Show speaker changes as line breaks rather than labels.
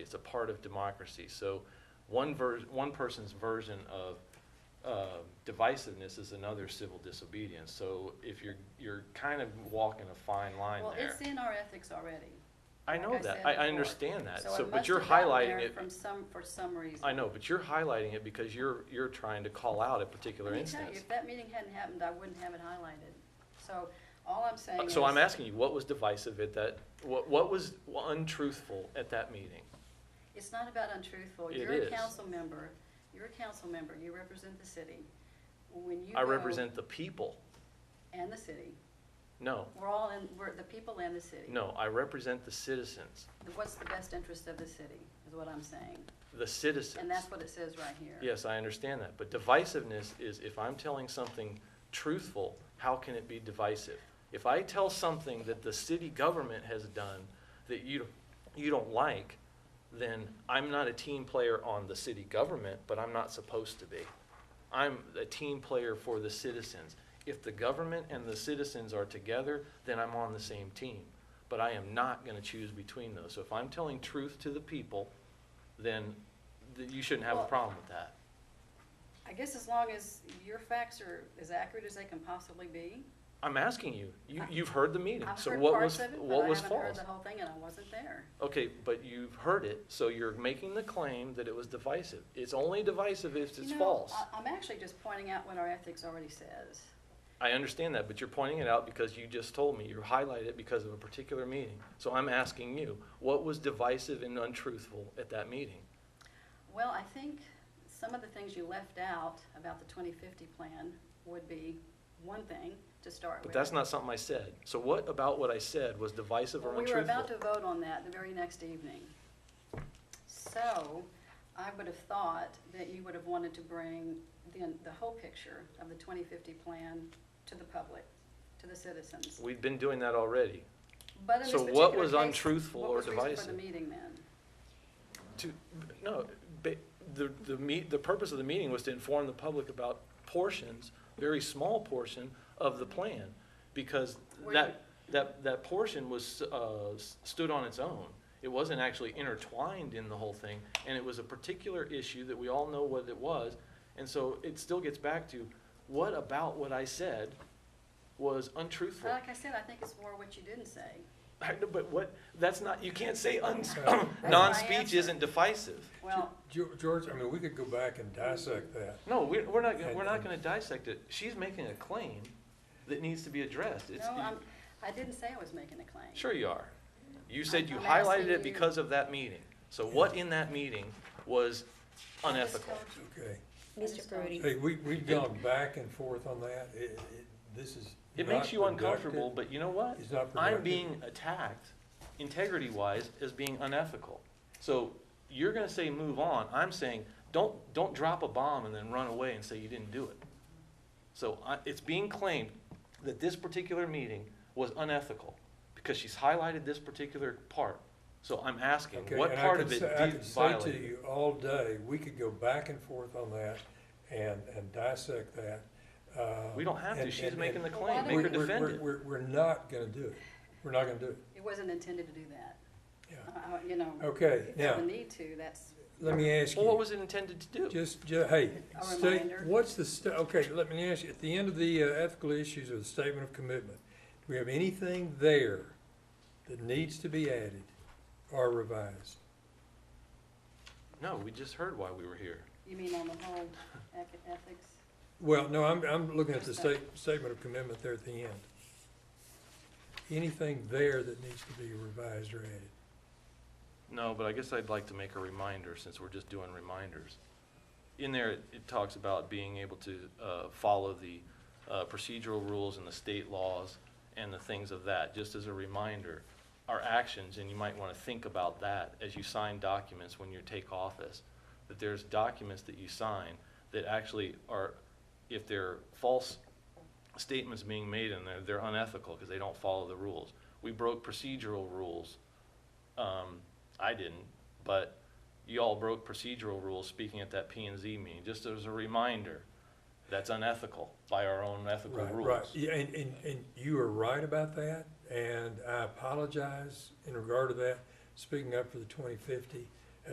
it's a part of democracy. So one ver, one person's version of uh, divisiveness is another civil disobedience. So if you're, you're kind of walking a fine line
Well,
there.
it's in our ethics already.
I
like
know
I
that,
said
I, I
before.
understand that,
So
so,
it
but
must
you're
have gotten
highlighting
there
it,
from some, for some reason.
I know, but you're highlighting it because you're, you're trying to call out a particular
Let me tell you,
instance.
if that meeting hadn't happened, I wouldn't have it highlighted. So all I'm saying
Uh,
is.
So I'm asking you, what was divisive at that, what, what was untruthful at that meeting?
It's not about untruthful.
It
You're
is.
a council member. You're a council member. You represent the city. When you
I
go-
represent the people.
And the city.
No,
We're all in, we're the people and the city.
no, I represent the citizens,
What's the best interest of the city, is what I'm saying.
the citizens.
And that's what it says right here.
Yes, I understand that, but divisiveness is if I'm telling something truthful, how can it be divisive? If I tell something that the city government has done that you, you don't like, then I'm not a team player on the city government, but I'm not supposed to be. I'm a team player for the citizens. If the government and the citizens are together, then I'm on the same team. But I am not gonna choose between those. So if I'm telling truth to the people, then th- you shouldn't have a
Well-
problem with that.
I guess as long as your facts are as accurate as they can possibly be.
I'm asking you. You,
I-
you've heard the meeting,
I've
so
heard
what
parts
was,
of it, but
what
I
was
haven't heard
false?
the whole thing, and I wasn't there.
Okay, but you've heard it, so you're making the claim that it was divisive. It's only divisive if
You
it's
know,
false.
I- I'm actually just pointing out what our ethics already says.
I understand that, but you're pointing it out because you just told me, you highlighted it because of a particular meeting. So I'm asking you, what was divisive and untruthful at that meeting?
Well, I think some of the things you left out about the 2050 plan would be one thing to start with.
But that's not something I said. So what about what I said was divisive or
Well, We were about to
untruthful?
vote on that the very next evening. So I would have thought that you would have wanted to bring the, the whole picture of the 2050 plan to the public, to the citizens.
We've been doing that already.
But in this
So what
particular
was
case,
untruthful or
What was reason for
divisive?
the meeting then?
To, no, ba- the, the meet, the purpose of the meeting was to inform the public about portions, very small portion of the plan. Because
Were
that, that, that portion was, uh, s- stood on its own. It wasn't actually intertwined in the whole thing, and it was a particular issue that we all know what it was. And so it still gets back to, what about what I said was
But
untruthful?
Like I said, I think it's more what you didn't say.
I know, But what, that's not, you can't say un,
my
non-speech
answer.
isn't divisive.
Well,
Ge- George, I mean, we could go back and dissect that.
No, we're, we're not, gonna- we're not
And-
gonna dissect it. She's making a claim that needs to be addressed. It's,
no, I'm, I didn't say I was making a claim.
sure you are. You said you
I'm
highlighted
asking
it
you-
because of that meeting. So what in that meeting was
I just
unethical?
told you.
Okay.
Mr. Perudy,
Hey, we, we've gone back and forth on that. It, it, this is
It
not
makes you uncomfortable,
productive.
but you know what?
It's not
I'm
productive.
being attacked, integrity-wise, as being unethical. So you're gonna say move on. I'm saying, don't, don't drop a bomb and then run away and say you didn't do it. So I, it's being claimed that this particular meeting was unethical because she's highlighted this particular part. So I'm asking,
Okay,
what
and I
part
could
of it
say- I
did
could say to
violate?
you all day, we could go back and forth on that and, and dissect that. uh,
We don't have to.
and-
She's
and-
making the
and
claim.
why
Make her
we're- we're-
defend
we're-
it.
We're, we're not gonna do it. We're not gonna do it,
It wasn't intended to do that.
yeah.
Uh, you know,
Okay,
if you have a
now,
need to, that's,
let me ask you.
Well, what was it intended to do?
Just, ju- hey,
A
state,
reminder.
what's the, sta- okay, let me ask you, at the end of the uh, ethical issues or the statement of commitment, do we have anything there that needs to be added or revised?
No, we just heard why we were here.
you mean on the whole ec- ethics?
Well, no, I'm, I'm looking at the state, statement of commitment there at the end. Anything there that needs to be revised or added?
No, but I guess I'd like to make a reminder, since we're just doing reminders. In there, it- it talks about being able to uh, follow the uh, procedural rules and the state laws and the things of that, just as a reminder, our actions, and you might want to think about that as you sign documents when you take office, that there's documents that you sign that actually are, if they're false statements being made in there, they're unethical because they don't follow the rules. We broke procedural rules um, I didn't, but you all broke procedural rules speaking at that P and Z meeting, just as a reminder, that's unethical by our own ethical
Right, right.
rules.
Yeah, and, and, and you are right about that, and I apologize in regard to that, speaking up for the twenty fifty.